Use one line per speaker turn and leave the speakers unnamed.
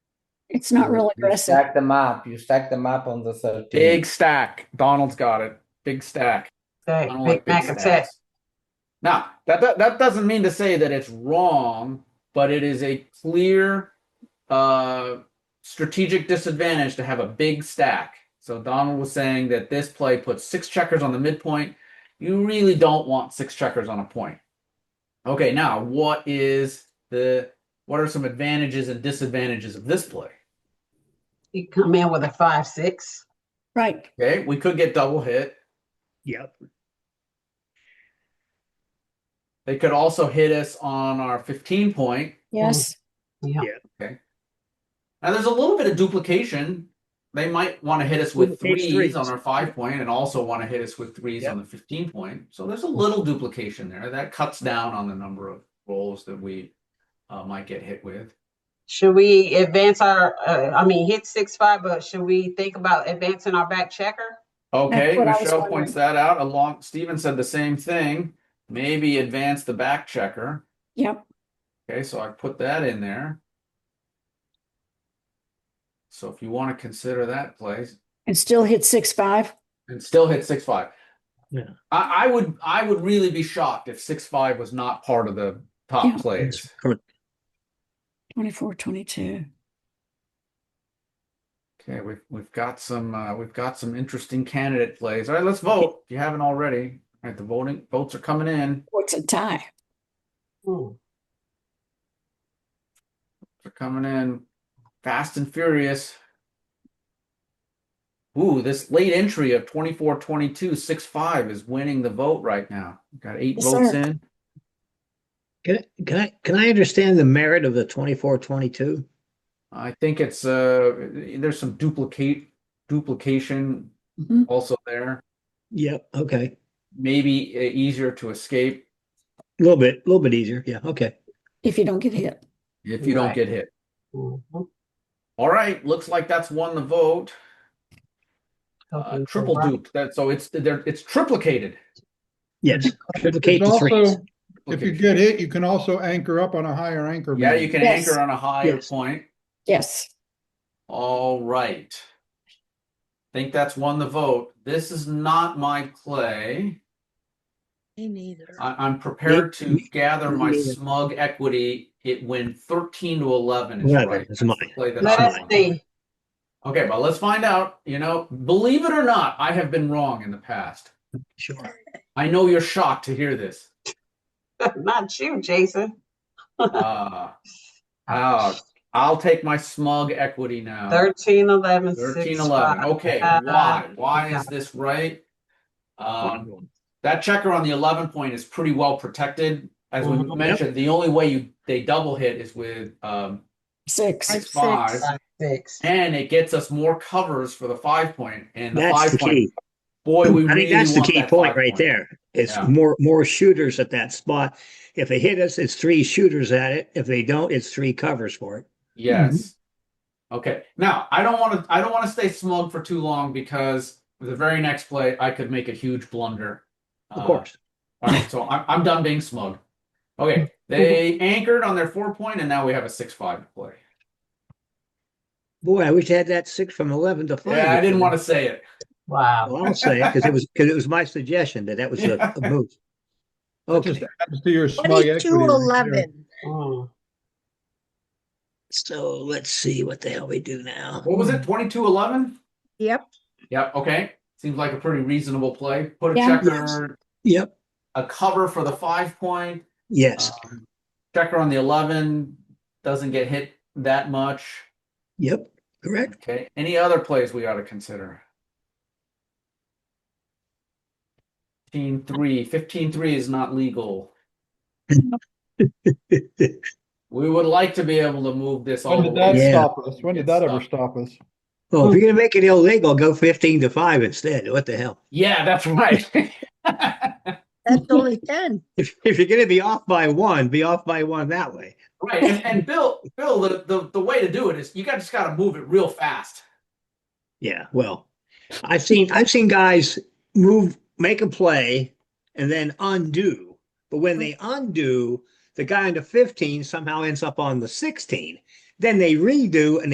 It's not real
You
aggressive.
Stack them up. You stack them up on the 13.
Big stack. Donald's got it. Big stack.
Okay,
I don't
Big
like big
Mac upset.
stacks. Now, that, that that doesn't mean to say that it's wrong, but it is a clear uh, strategic disadvantage to have a big stack. So Donald was saying that this play puts six checkers on the midpoint. You really don't want six checkers on a point. Okay, now what is the what are some advantages and disadvantages of this play?
You come in with a five, six.
Right.
Okay, we could get double hit.
Yep.
They could also hit us on our 15 point.
Yes.
Yeah.
Now there's a little bit of duplication. They might want to hit us with
With page
threes,
threes.
on our five point and also want to hit us with threes
Yep.
on the 15 point. So there's a little duplication there. That cuts down on the number of rolls that we uh, might get hit with.
Should we advance our, uh, I mean, hit six, five, but should we think about advancing our back checker?
Okay,
what I was
Michelle
wondering.
points that out. Along, Steven said the same thing. Maybe advance the back checker.
Yep.
Okay, so I put that in there. So if you want to consider that place,
And still hit six, five.
and still hit six five.
Yeah.
I, I would I would really be shocked if six five was not part of the top
Yeah.
plays.
Twenty-four, twenty-two.
Okay, we've we've got some uh, we've got some interesting candidate plays. All right, let's vote. If you haven't already, all right, the voting votes are coming in.
What's a tie?
Hmm.
They're coming in fast and furious. Ooh, this late entry of 24 22 6 5 is winning the vote right now. Got eight
Yes,
votes
sir.
in.
Can, I- can I, can I understand the merit of the twenty-four, twenty-two?
I think it's uh there's some duplicate duplication
Mhm.
also there.
Yep, okay.
Maybe uh, easier to escape
A little bit, a little bit easier. Yeah, okay.
If you don't get hit.
if you don't
Right.
get hit.
Mhm.
All right, looks like that's won the vote. Uh,
Okay, so
triple
right.
duped. That so it's there it's triplicated.
Yes.
It's
Duplicate the threes.
also, if you get hit, you can also anchor up on a higher anchor.
Yeah,
man.
you can
Yes.
anchor on a higher
Yes.
point.
Yes.
All right. Think that's won the vote. This is not my play.
Me neither.
I, I'm prepared to
me-
gather my
me-
smug equity. It when thirteen to eleven is
Yeah,
right.
that's mine.
That's the play that
Let
I
us
want.
see.
Okay, but let's find out. You know, believe it or not, I have been wrong in the past.
Sure.
I know you're shocked to hear this.
Not you, Jason.
Uh, uh, I'll take my smug equity now.
Thirteen, eleven,
Uh, Thirteen,
six,
eleven. Oh,
five.
Okay,
Uh,
why? Why is this right? Um, That checker on the eleven point is pretty well protected. As we
Mhm. Yep.
mentioned, the only way you they double hit is with um
Six.
six five,
six.
Five, Six.
and it gets us more covers for the five point and the
That's
five
the
point.
key.
Boy, we
I
really
think that's the
want
key
that
point
five
right there. It's
Yeah.
more, more shooters at that spot. If they hit us, it's three shooters at it. If they don't, it's three covers for it.
Yes. Okay. Now I don't want to. I don't want to stay smug for too long because the very next play I could make a huge blunder.
Of
Uh,
course.
All right. So I'm I'm done being smug. Okay. They
Mm-hmm.
anchored on their four point, and now we have a six five play.
Boy, I wish I had that six from eleven to five.
Yeah, I didn't want to say it.
Wow.
Well, I'll say it because it was, because it was my suggestion that that was a a move.
That just
Okay,
adds to your smug equity.
Twenty-two,
right there.
eleven.
Mm.
so let's see what the hell we do now.
What was it? Twenty two eleven.
Yep.
Yep. Okay. Seems like a pretty reasonable play. Put a
Yeah.
checker,
Yep,
a cover for the five point.
yes,
Um, checker on the eleven doesn't get hit that much.
yep, correct.
Okay, any other plays we ought to consider? 15 3. 15 3 is not legal. We would like to be able to move this all
When
the
did that
way.
Yeah.
stop us? When did that ever stop us?
Well, if you're gonna make it illegal, go fifteen to five instead. What the hell?
Yeah, that's right.
That's only ten.
If, if you're gonna be off by one, be off by one that way.
right. And, and Bill, Bill, the, the, the way to do it is you got just got to move it real fast.
Yeah, well, I've seen, I've seen guys move, make a play and then undo. But when they undo, the guy on the fifteen somehow ends up on the sixteen. Then they redo and